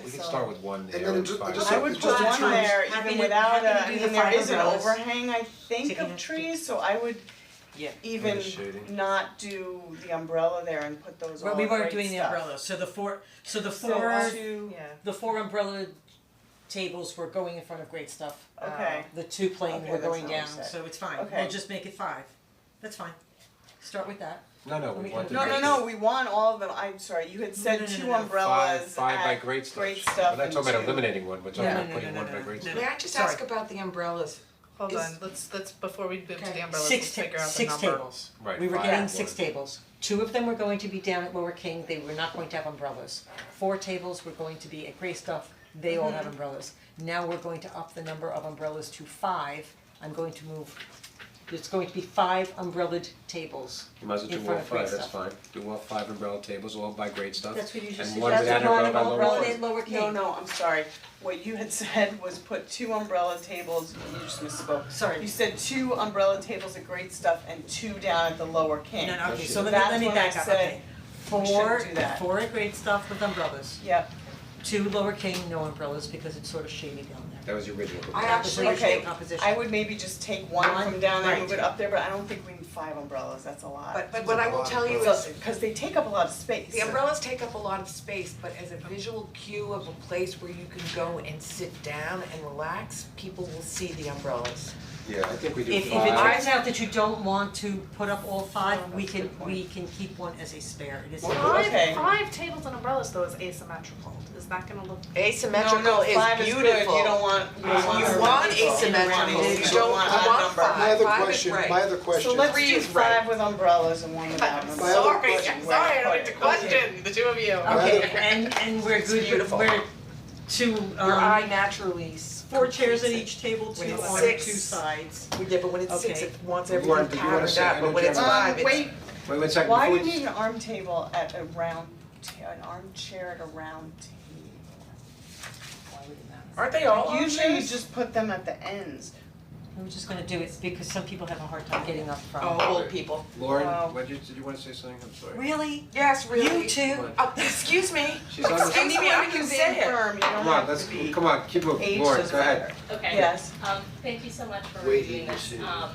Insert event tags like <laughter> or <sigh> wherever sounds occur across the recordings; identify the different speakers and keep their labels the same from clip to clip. Speaker 1: can
Speaker 2: so-
Speaker 1: start with one
Speaker 3: then
Speaker 1: there and
Speaker 3: it ju-
Speaker 1: five.
Speaker 3: just-
Speaker 4: I would put
Speaker 2: Just
Speaker 4: one
Speaker 2: one.
Speaker 4: there
Speaker 2: Happy
Speaker 4: even
Speaker 2: to-
Speaker 4: without
Speaker 2: happy to
Speaker 4: a, I
Speaker 2: do
Speaker 4: mean,
Speaker 2: the
Speaker 4: there is an
Speaker 2: farmhouse.
Speaker 4: overhang, I think,
Speaker 2: Taking
Speaker 4: of
Speaker 2: out the-
Speaker 4: trees, so I would
Speaker 2: Yeah.
Speaker 4: even
Speaker 1: the shading.
Speaker 4: not do the umbrella there and put those all
Speaker 2: Well, we weren't
Speaker 4: great
Speaker 2: doing the
Speaker 4: stuff.
Speaker 2: umbrellas, so the four, so the
Speaker 4: So
Speaker 2: four,
Speaker 4: two-
Speaker 5: Yeah.
Speaker 2: the four umbrella tables were going in front of great stuff.
Speaker 4: okay,
Speaker 2: The two plane
Speaker 4: Okay,
Speaker 2: were
Speaker 4: that's
Speaker 2: going
Speaker 4: not what
Speaker 2: down,
Speaker 4: you said.
Speaker 2: so it's fine,
Speaker 4: Okay.
Speaker 2: we'll just make it five, that's fine, start with that.
Speaker 1: No, no,
Speaker 2: We
Speaker 1: we
Speaker 2: can-
Speaker 1: want to
Speaker 4: no,
Speaker 1: make
Speaker 4: no,
Speaker 1: it
Speaker 4: no, we want all of them, I'm sorry, you had
Speaker 2: No,
Speaker 4: said
Speaker 2: no, no,
Speaker 4: two
Speaker 2: no, no.
Speaker 1: five,
Speaker 4: umbrellas
Speaker 1: five by
Speaker 4: at-
Speaker 1: great stuff.
Speaker 4: great stuff
Speaker 1: We're not talking
Speaker 4: and
Speaker 1: about
Speaker 4: two-
Speaker 1: eliminating one, we're talking
Speaker 2: Yeah.
Speaker 1: about
Speaker 2: No, no,
Speaker 1: putting
Speaker 2: no,
Speaker 1: one
Speaker 2: no,
Speaker 1: by
Speaker 2: no,
Speaker 1: great
Speaker 2: no.
Speaker 1: stuff.
Speaker 6: May I just
Speaker 2: Sorry.
Speaker 6: ask about the
Speaker 5: uh,
Speaker 6: umbrellas?
Speaker 5: Hold
Speaker 6: Is-
Speaker 5: on, let's, let's, before we move to
Speaker 6: Okay.
Speaker 5: the umbrellas, let's
Speaker 2: Six ta-
Speaker 5: figure out the
Speaker 2: six
Speaker 5: number.
Speaker 2: tables.
Speaker 1: Right,
Speaker 2: We were
Speaker 1: five,
Speaker 2: getting six
Speaker 1: one.
Speaker 2: tables, two of them were going to be down at Lower King, they were not going to have umbrellas. Four tables were going to be at Gray Stuff, they all have umbrellas. Now we're going to up the number of umbrellas to five, I'm going to move, it's going to be five umbrellaed tables.
Speaker 1: You might as well
Speaker 2: in
Speaker 1: do all
Speaker 2: front of great
Speaker 1: five, that's
Speaker 2: stuff.
Speaker 1: fine. Do all five umbrella tables, all by grade stuff.
Speaker 2: That's what you just said.
Speaker 1: And one
Speaker 2: That's
Speaker 1: without
Speaker 2: the one
Speaker 1: umbrella by
Speaker 2: about
Speaker 1: lower
Speaker 2: umbrella
Speaker 1: one.
Speaker 2: and lower
Speaker 4: No,
Speaker 2: King.
Speaker 4: no, I'm sorry, what you had <laughs> said was put two umbrella tables, you just misspoke.
Speaker 2: Sorry.
Speaker 4: You said two umbrella tables at great stuff and two down at the lower king.
Speaker 2: No, no, okay, so
Speaker 4: That's
Speaker 2: let me, let me
Speaker 4: when I
Speaker 2: back up,
Speaker 4: said
Speaker 2: okay.
Speaker 4: we
Speaker 2: Four,
Speaker 4: shouldn't do that.
Speaker 2: four at Great Stuff with umbrellas,
Speaker 4: Yep,
Speaker 2: two Lower King, no umbrellas, because it's sort of shady down there.
Speaker 1: That was your original.
Speaker 6: I actually,
Speaker 4: Okay.
Speaker 2: Composition.
Speaker 4: I would maybe just take one from down there and move
Speaker 2: Right.
Speaker 4: it up there, but I don't think we need five umbrellas, that's a lot.
Speaker 6: but, but what I will tell you
Speaker 4: So,
Speaker 6: is,
Speaker 4: cause they take up a lot of space.
Speaker 6: the umbrellas take up a lot of space, but as a visual cue of a place where you can go and sit down and relax, people will see the umbrellas.
Speaker 1: Yeah, I think we do
Speaker 2: If if it
Speaker 1: five.
Speaker 2: turns out that you don't want to put up all five, we can,
Speaker 4: good point.
Speaker 2: we can keep one as a spare, it is.
Speaker 4: Okay.
Speaker 5: Five, five tables and umbrellas though is asymmetrical, is that gonna look?
Speaker 6: Asymmetrical
Speaker 4: No,
Speaker 6: is beautiful.
Speaker 4: no, five is good, you don't want, you don't want.
Speaker 6: You
Speaker 4: her
Speaker 6: want
Speaker 4: to go.
Speaker 6: asymmetrical,
Speaker 4: You
Speaker 6: you
Speaker 4: don't
Speaker 6: don't
Speaker 4: want
Speaker 6: want
Speaker 4: a number.
Speaker 3: My other
Speaker 6: Five is
Speaker 3: question,
Speaker 6: right.
Speaker 3: my other question.
Speaker 4: So let's do
Speaker 6: is right.
Speaker 4: five with umbrellas and one without
Speaker 5: I'm
Speaker 4: umbrellas.
Speaker 3: My other sorry, I'm
Speaker 4: Question, where
Speaker 5: Sorry, I
Speaker 4: to put
Speaker 5: don't need to
Speaker 4: it.
Speaker 5: question the two of you.
Speaker 2: Okay, and and we're good,
Speaker 6: beautiful.
Speaker 2: we're two,
Speaker 6: Your eye
Speaker 2: um,
Speaker 6: naturally.
Speaker 2: four chairs at each table, two
Speaker 6: When it's
Speaker 2: on two
Speaker 6: six.
Speaker 2: sides.
Speaker 6: Yeah, but when it's six,
Speaker 2: Okay.
Speaker 6: it wants
Speaker 1: You wanna-
Speaker 6: everything
Speaker 1: you wanna
Speaker 6: patterned
Speaker 1: say
Speaker 6: out, but when it's
Speaker 1: energetic.
Speaker 6: five, it's.
Speaker 4: Um, Wait,
Speaker 1: Wait, wait a second,
Speaker 4: why do
Speaker 1: before
Speaker 4: you
Speaker 1: we-
Speaker 4: need an arm table at a round ta- an armchair at a round table?
Speaker 6: Aren't they all
Speaker 4: Usually you just put them at the ends.
Speaker 2: We're just gonna do it because some people have a hard time getting up from.
Speaker 6: Oh, old people.
Speaker 4: Wow.
Speaker 1: Lauren, what did you, did you wanna say something? I'm sorry.
Speaker 2: Really?
Speaker 6: Yes, really.
Speaker 2: You too?
Speaker 6: Oh, excuse me.
Speaker 1: She's on the-
Speaker 6: Excuse me, I can say it.
Speaker 4: Firm, you don't
Speaker 1: Come on,
Speaker 4: have
Speaker 1: let's,
Speaker 4: to be.
Speaker 1: come on, keep moving,
Speaker 4: Age
Speaker 1: Lauren,
Speaker 4: doesn't
Speaker 1: go ahead.
Speaker 4: matter.
Speaker 7: Okay.
Speaker 4: Yes.
Speaker 7: Um, thank you so much for
Speaker 3: Wait,
Speaker 7: reviewing
Speaker 3: you
Speaker 7: this.
Speaker 3: see.
Speaker 7: Um,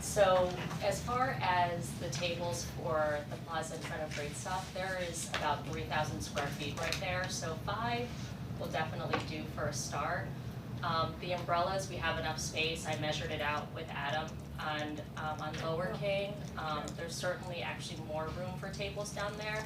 Speaker 7: so as far as the tables for the plaza in front of Great Stuff, there is about three thousand square feet right there, so five will definitely do for a start. Um, the umbrellas, we have enough space, I measured it out with Adam on, um, on Lower King. Um, there's certainly actually more room for tables down there.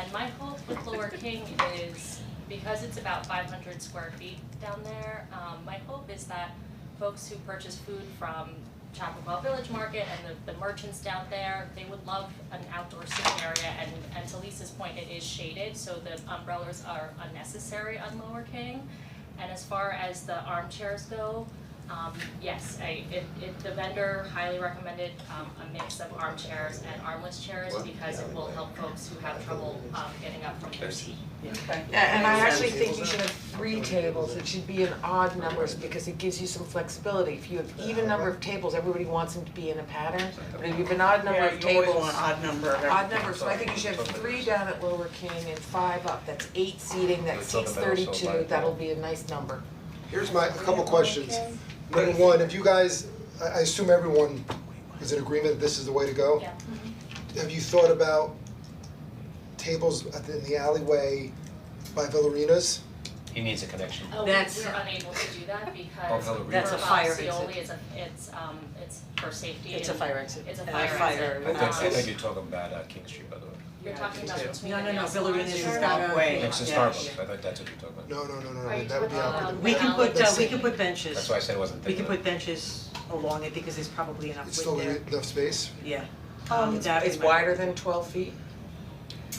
Speaker 7: And my hope with Lower King is, because it's about five hundred square feet down there, um, my hope is that folks who purchase food from Chapel Village Market and the, the merchants down there, they would love an outdoor sitting area and, and to Lisa's point, it is shaded, so the umbrellas are unnecessary on Lower King. And as far as the armchairs go, um, yes, I, it, it, the vendor highly recommended, um, a mix of armchairs and armless chairs because it will help folks who have trouble, um, getting up from their seat.
Speaker 6: Yeah, and I actually think you should have three tables, it should be in odd numbers, because it gives you some flexibility. If you have even number of tables, everybody wants them to be in a pattern, but if you have an odd number of
Speaker 4: Yeah, you always
Speaker 6: tables,
Speaker 4: want odd number of
Speaker 6: odd
Speaker 4: everything.
Speaker 6: numbers, so I think you should have three down at Lower King and five up, that's eight seating, that
Speaker 1: Let's talk
Speaker 6: seats
Speaker 1: about also
Speaker 6: thirty-two,
Speaker 1: light.
Speaker 6: that'll be a nice number.
Speaker 3: Here's my, a couple questions. Number one, if you guys, I, I assume everyone is in agreement that this is the way to go?
Speaker 7: Yeah.
Speaker 3: Have you thought about tables at the, in the alleyway by Villarinas?
Speaker 8: He needs a connection.
Speaker 7: Oh, we
Speaker 2: That's-
Speaker 7: we're unable to do that
Speaker 1: Oh,
Speaker 7: because
Speaker 1: hell, it
Speaker 2: That's
Speaker 7: for
Speaker 2: a fire
Speaker 7: Bob Seoli,
Speaker 2: exit.
Speaker 7: it's a, it's, um, it's for safety
Speaker 2: It's a
Speaker 7: and-
Speaker 2: fire exit.
Speaker 7: It's a
Speaker 2: And
Speaker 7: fire exit.
Speaker 2: Uh, fire-
Speaker 1: I think, I
Speaker 7: Um,
Speaker 1: think you're talking about uh, King Street, by the way.
Speaker 7: You're talking about between
Speaker 2: No,
Speaker 7: the
Speaker 2: no, no,
Speaker 7: nail
Speaker 2: Villarin
Speaker 7: salons
Speaker 2: is
Speaker 7: and-
Speaker 2: got a.
Speaker 4: Walkway.
Speaker 1: Next to
Speaker 2: Yeah.
Speaker 1: Starbucks, I thought that's what you're talking about.
Speaker 3: No, no, no, no,
Speaker 7: Are
Speaker 3: no,
Speaker 7: you
Speaker 3: that would be
Speaker 7: talking
Speaker 3: awkward.
Speaker 7: about-
Speaker 2: We can put, uh, we
Speaker 3: That's-
Speaker 2: can put benches.
Speaker 1: That's why I said I wasn't
Speaker 2: We
Speaker 1: thinking
Speaker 2: can
Speaker 1: of it.
Speaker 2: put benches along it because there's probably enough
Speaker 3: It's
Speaker 2: width
Speaker 3: still
Speaker 2: there,
Speaker 3: enough space?
Speaker 2: yeah.
Speaker 4: Um,
Speaker 2: That is
Speaker 6: It's
Speaker 2: my-
Speaker 6: wider than twelve feet?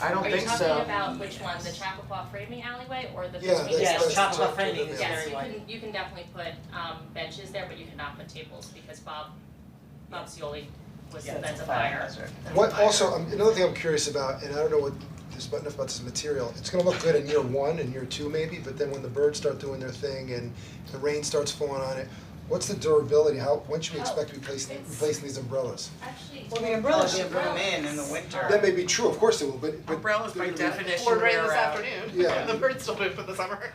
Speaker 6: I don't
Speaker 7: Are you
Speaker 6: think so.
Speaker 7: talking about which one, the Chappaqua framing alleyway or the
Speaker 3: Yeah,
Speaker 7: between
Speaker 3: that's-
Speaker 7: the nail
Speaker 2: Yes,
Speaker 3: that's-
Speaker 7: salons?
Speaker 2: Chappaqua framing is
Speaker 7: Yes,
Speaker 2: very
Speaker 7: you
Speaker 2: wide.
Speaker 7: can, you can definitely put um benches there, but you cannot put tables because Bob, Bob Seoli was,
Speaker 4: Yeah, it's
Speaker 7: that's
Speaker 4: a
Speaker 7: a
Speaker 4: fire
Speaker 7: fire,
Speaker 4: hazard.
Speaker 7: that's a
Speaker 3: What
Speaker 7: fire.
Speaker 3: also, um, another thing I'm curious about, and I don't know what, there's not enough about this material, it's gonna look good in year one and year two maybe, but then when the birds start doing their thing and the rain starts falling on it, what's the durability, how, when should we expect replacing,
Speaker 7: it's-
Speaker 3: replacing these umbrellas?
Speaker 7: Actually.
Speaker 4: Well, the umbrellas should put 'em
Speaker 7: umbrellas
Speaker 4: in in the winter.
Speaker 7: are-
Speaker 3: That may be true, of course it will, but but.
Speaker 6: Umbrellas by
Speaker 3: they're gonna be-
Speaker 6: definition
Speaker 5: Or rain
Speaker 6: wear
Speaker 5: this
Speaker 6: out.
Speaker 5: <laughs> afternoon,
Speaker 3: Yeah.
Speaker 5: the uh, birds still move for the summer.